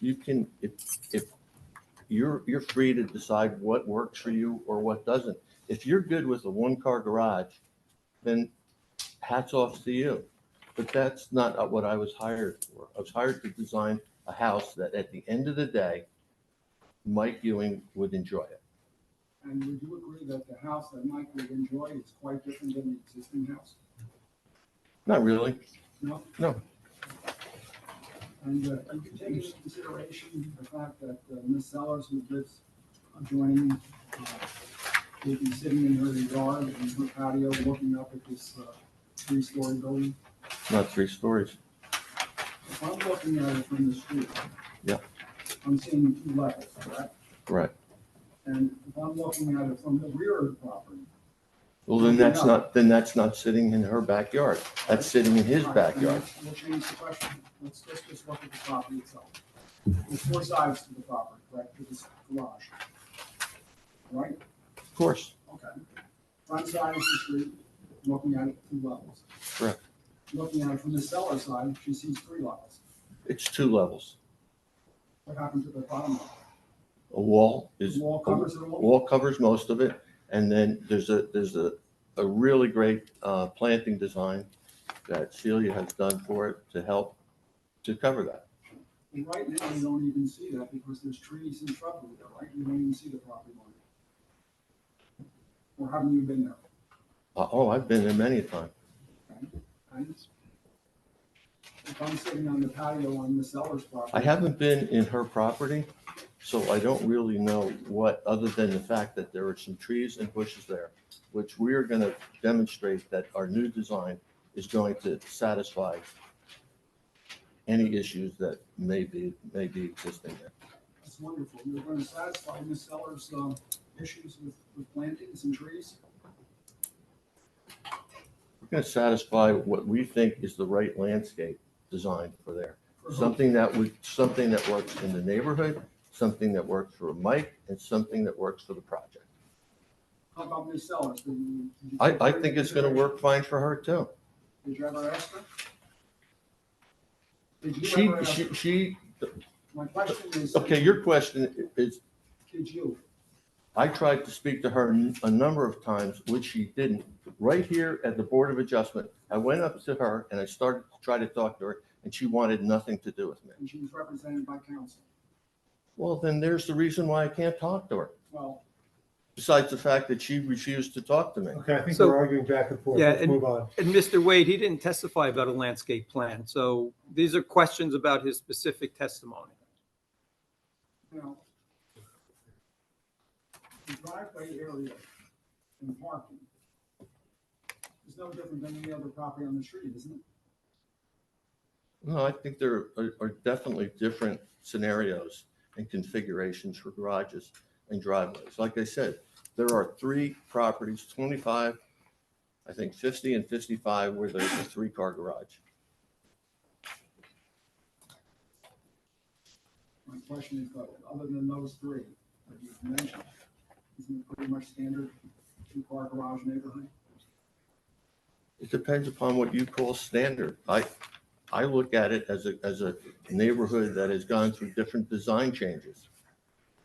you can, if, if you're, you're free to decide what works for you or what doesn't. If you're good with a one-car garage, then hats off to you. But that's not what I was hired for. I was hired to design a house that at the end of the day, Mike Ewing would enjoy it. And would you agree that the house that Mike would enjoy is quite different than the existing house? Not really. No? No. And uh, you could take into consideration the fact that uh, Ms. Sellers, who lives adjoining, uh, will be sitting in her yard and her patio looking up at this uh, three-story building. Not three stories. If I'm looking at it from the street. Yeah. I'm seeing two levels, correct? Right. And if I'm looking at it from the rear of the property. Well, then that's not, then that's not sitting in her backyard. That's sitting in his All right, then backyard. let's- We'll change the question. Let's just, just look at the property itself. There's four sides to the property, correct, to this garage. Right, Of course. okay. Front side is the street, looking at it two levels. Correct. Looking at it from the cellar side, she sees three levels. It's two levels. What happened to the bottom level? A wall is, The wall covers it all? wall covers most of it. And then there's a, there's a, a really great uh, planting design that Celia has done for it to help to cover that. And right now, you don't even see that because there's trees and shrubbery there, right? You don't even see the property line. Or haven't you been there? Uh, Oh, I've been there many a time. And If I'm sitting on the patio on Miss Eller's property. I haven't been in her property, so I don't really know what, other than the fact that there are some trees and bushes there, which we are going to demonstrate that our new design is going to satisfy any issues that may be, may be existing there. It's wonderful. You're going to satisfy Miss Eller's, um, issues with, with plantings and trees. We're going to satisfy what we think is the right landscape design for there. for her. Something that would, something that works in the neighborhood, something that works for Mike, and something that works for the project. How about Miss Sellers? Did you- did you I, take I her think into it's going to work fine for her too. consideration? Did you ever ask her? Did you She, ever ask? she, she, My question is. okay, your question is, Did you? I tried to speak to her a number of times, which she didn't. Right here at the Board of Adjustment, I went up to her and I started to try to talk to her, and she wanted nothing to do with me. And she was represented by counsel. Well, then there's the reason why I can't talk to her, Well, besides the fact that she refused to talk to me. Okay, I think So- we're arguing back and forth. Yeah, Let's and- move on. And Mr. Wade, he didn't testify about a landscape plan, so these are questions about his specific testimony. you know, the driveway area and parking is no different than any other property on the street, isn't it? No, I think there are- are definitely different scenarios and configurations for garages and driveways. Like I said, there are three properties, 25, I think 50 and 55, where there's a three-car garage. My question is, though, other than those three that you've mentioned, isn't it pretty much standard two-car garage neighborhood? It depends upon what you call standard. I, I look at it as a, as a neighborhood that has gone through different design changes.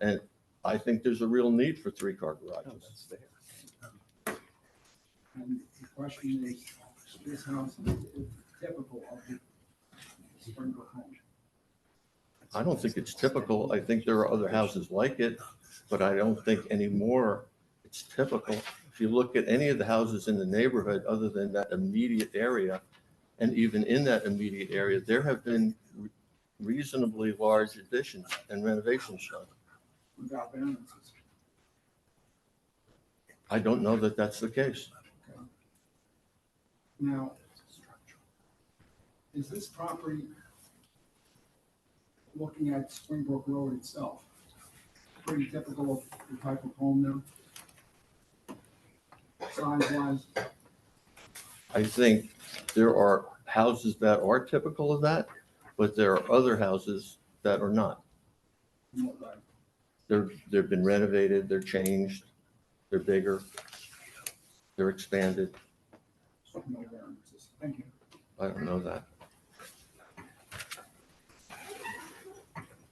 And I think there's a real need for three-car garages. And the question is, this house is typical of the Springbrook home. I don't think it's typical. I think there are other houses like it, but I don't think anymore it's typical. If you look at any of the houses in the neighborhood, other than that immediate area, and even in that immediate area, there have been reasonably large additions and renovations done. without variances. I don't know that that's the case. Now, is this property looking at Springbrook Road itself? Pretty typical of the type of home there? Size wise, I think there are houses that are typical of that, but there are other houses that are not. in what way? They're, they've been renovated, they're changed, they're bigger, they're expanded. No variances. Thank you. I don't know that.